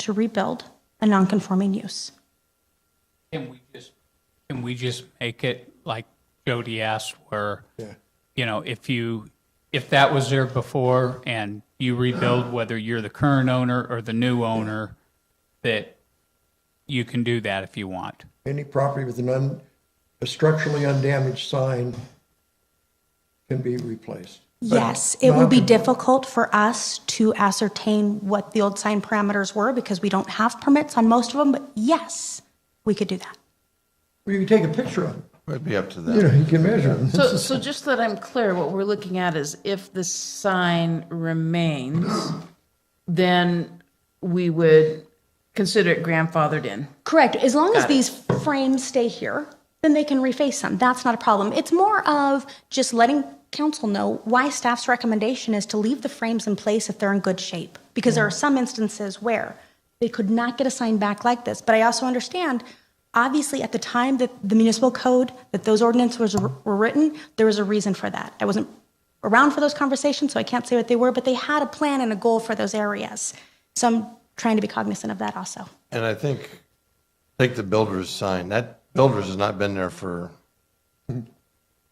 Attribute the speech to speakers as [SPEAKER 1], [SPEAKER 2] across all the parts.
[SPEAKER 1] to rebuild a nonconforming use.
[SPEAKER 2] Can we just, can we just make it like Jody asked, where, you know, if you, if that was there before and you rebuild, whether you're the current owner or the new owner, that you can do that if you want.
[SPEAKER 3] Any property with an un, a structurally undamaged sign can be replaced. But
[SPEAKER 1] Yes, it will be
[SPEAKER 3] non-conform-
[SPEAKER 1] difficult for us to ascertain what the old sign parameters were because we don't have permits on most of them, but yes, we could do that.
[SPEAKER 3] You can take a picture of it,
[SPEAKER 4] It'd be up to
[SPEAKER 3] you know,
[SPEAKER 4] them.
[SPEAKER 3] you can measure them.
[SPEAKER 5] So, so just that I'm clear, what we're looking at is if the sign remains, then we would consider it grandfathered in.
[SPEAKER 1] Correct, as long as
[SPEAKER 5] Got it.
[SPEAKER 1] these frames stay here, then they can reface them. That's not a problem. It's more of just letting council know why staff's recommendation is to leave the frames in place if they're in good shape. Because there are some instances where they could not get a sign back like this. But I also understand, obviously, at the time that the municipal code, that those ordinances were were written, there was a reason for that. I wasn't around for those conversations, so I can't say what they were, but they had a plan and a goal for those areas. So I'm trying to be cognizant of that also.
[SPEAKER 4] And I think, take the builder's sign, that builder's has not been there for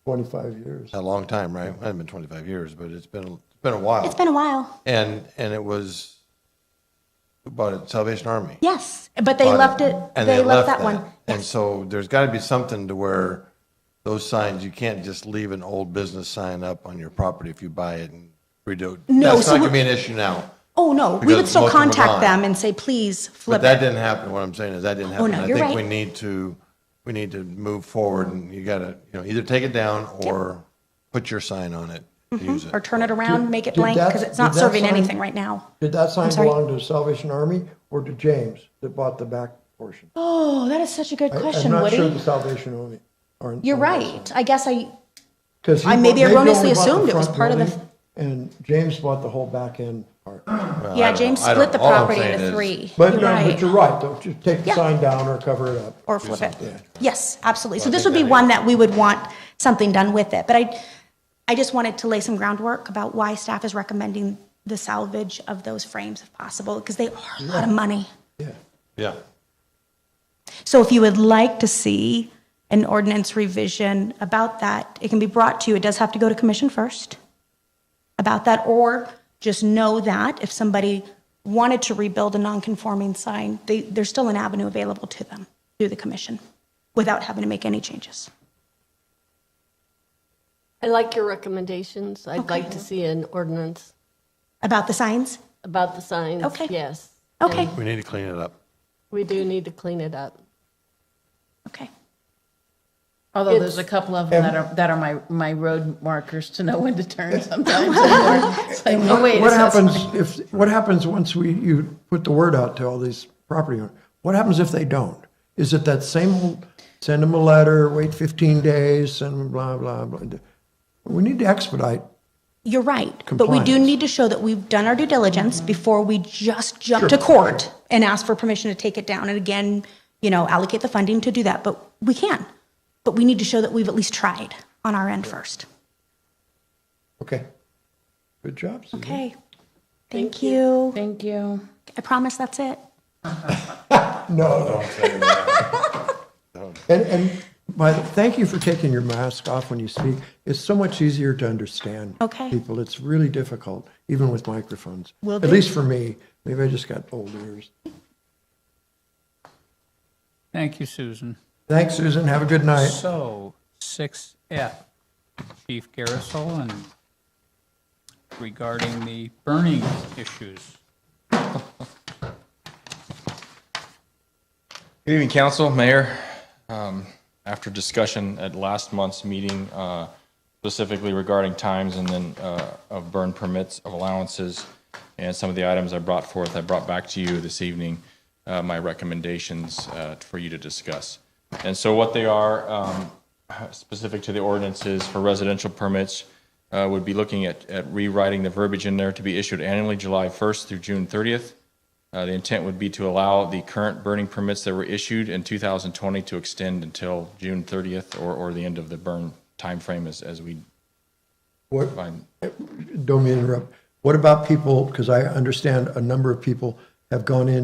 [SPEAKER 3] Twenty-five years.
[SPEAKER 4] a long time, right? It hasn't been 25 years, but it's been, it's been a while.
[SPEAKER 5] Uh,
[SPEAKER 1] It's been a while.
[SPEAKER 4] And, and it was, who bought it? Salvation Army.
[SPEAKER 1] Yes, but they
[SPEAKER 4] bought
[SPEAKER 1] left it,
[SPEAKER 4] and
[SPEAKER 1] they left that one.
[SPEAKER 4] And so there's got to be something to where those signs, you can't just leave an old business sign up on your property if you buy it and redo it.
[SPEAKER 1] No,
[SPEAKER 4] That's
[SPEAKER 1] so
[SPEAKER 4] not
[SPEAKER 1] we-
[SPEAKER 4] going to be an issue now.
[SPEAKER 1] Oh, no, we
[SPEAKER 4] Because
[SPEAKER 1] would still
[SPEAKER 4] most of them are
[SPEAKER 1] contact
[SPEAKER 4] gone.
[SPEAKER 1] them and say, please
[SPEAKER 4] But
[SPEAKER 1] flip it.
[SPEAKER 4] that
[SPEAKER 1] Oh,
[SPEAKER 4] didn't happen. What I'm saying is that didn't happen.
[SPEAKER 1] no,
[SPEAKER 4] I
[SPEAKER 1] you're
[SPEAKER 4] think
[SPEAKER 1] right.
[SPEAKER 4] we need to we need to move forward, and you got to you know either take it down or put your sign on it, use it.
[SPEAKER 1] Mm-hmm. Or turn it around, make it
[SPEAKER 3] Did
[SPEAKER 1] blank,
[SPEAKER 3] that-
[SPEAKER 1] because it's not
[SPEAKER 3] did that
[SPEAKER 1] serving
[SPEAKER 3] sign-
[SPEAKER 1] anything right now.
[SPEAKER 3] Did that sign
[SPEAKER 1] sorry?
[SPEAKER 3] belong to Salvation Army or to James that bought the back portion?
[SPEAKER 1] Oh, that is such a good
[SPEAKER 3] I-
[SPEAKER 1] question,
[SPEAKER 3] I'm not sure
[SPEAKER 1] Woody.
[SPEAKER 3] the Salvation Army. are-
[SPEAKER 1] You're
[SPEAKER 3] are that
[SPEAKER 1] right. I guess I,
[SPEAKER 3] Because he
[SPEAKER 1] I
[SPEAKER 3] bought-
[SPEAKER 1] maybe
[SPEAKER 3] they
[SPEAKER 1] erroneously
[SPEAKER 3] only bought the
[SPEAKER 1] assumed it was
[SPEAKER 3] front
[SPEAKER 1] part of the-
[SPEAKER 3] building, And James bought the whole back end part.
[SPEAKER 4] Well, I
[SPEAKER 1] yeah,
[SPEAKER 4] don't know.
[SPEAKER 1] James
[SPEAKER 4] I don't-
[SPEAKER 1] split the
[SPEAKER 4] all I'm
[SPEAKER 1] property
[SPEAKER 4] saying
[SPEAKER 1] into
[SPEAKER 4] is-
[SPEAKER 1] three.
[SPEAKER 3] But
[SPEAKER 1] You're
[SPEAKER 3] no, but
[SPEAKER 1] right.
[SPEAKER 3] you're right, though, just take the
[SPEAKER 1] Yeah.
[SPEAKER 3] sign down or cover it up.
[SPEAKER 1] Or flip it. Yes, absolutely. So
[SPEAKER 4] I
[SPEAKER 1] this would
[SPEAKER 4] think
[SPEAKER 1] be
[SPEAKER 4] that
[SPEAKER 1] one that we would want something done with it. But I, I just wanted to lay some groundwork about why staff is recommending the salvage of those frames if possible, because they are a lot of money.
[SPEAKER 3] Yeah.
[SPEAKER 4] Yeah,
[SPEAKER 1] So if you would like to see an ordinance revision about that, it can be brought to you. It does have to go to commission first about that, or just know that if somebody wanted to rebuild a nonconforming sign, they, there's still an avenue available to them through the commission without having to make any changes.
[SPEAKER 6] I like your recommendations. I'd like to see an ordinance
[SPEAKER 1] About the signs?
[SPEAKER 6] about the signs.
[SPEAKER 1] Okay.
[SPEAKER 6] Yes.
[SPEAKER 1] Okay,
[SPEAKER 4] we need to clean it up.
[SPEAKER 6] We do need to clean it up.
[SPEAKER 1] okay.
[SPEAKER 5] Although there's a couple of them that are, that are my, my road markers to know when to turn sometimes. anymore. It's like, oh, wait, it
[SPEAKER 3] What
[SPEAKER 5] says-
[SPEAKER 3] happens if, what happens once we, you put the word out to all these property owners? What happens if they don't? Is it that same, old, send them a letter, wait 15 days, send them blah, blah, blah? We need to expedite.
[SPEAKER 1] You're right, but we do
[SPEAKER 3] Compliance.
[SPEAKER 1] need to show that we've done our due diligence before we just jump to court and ask for permission to take it down, and again, you know, allocate the funding to do that, but we can. But we need to show that we've at least tried on our end first.
[SPEAKER 3] Okay. Good job, Susan.
[SPEAKER 1] Okay. Thank you.
[SPEAKER 5] Thank you.
[SPEAKER 1] I promise that's it.
[SPEAKER 3] No. And, and by, the- thank you for taking your mask off when you speak. It's so much easier to understand.
[SPEAKER 1] Okay.
[SPEAKER 3] People, it's really difficult, even with microphones.
[SPEAKER 1] Will
[SPEAKER 3] At
[SPEAKER 1] do.
[SPEAKER 3] least for me. Maybe I just got old ears.
[SPEAKER 2] Thank you, Susan.
[SPEAKER 3] Thanks, Susan. Have a good night.
[SPEAKER 2] So, 6F, Chief Garrisol, and regarding the burning issues.
[SPEAKER 7] Good evening, council, mayor. Um, After discussion at last month's meeting, uh, specifically regarding times and then uh, of burn permits, of allowances, and some of the items I brought forth, I brought back to you this evening uh, my recommendations uh, for you to discuss. And so what they are, um, specific to the ordinances for residential permits, uh, would be looking at at rewriting the verbiage in there to be issued annually July 1st through June 30th. Uh, The intent would be to allow the current burning permits that were issued in 2020 to extend until June 30th or, or the end of the burn timeframe as, as we
[SPEAKER 3] What,
[SPEAKER 7] find.
[SPEAKER 3] don't mean to interrupt. What about people, because I understand a number of people have gone in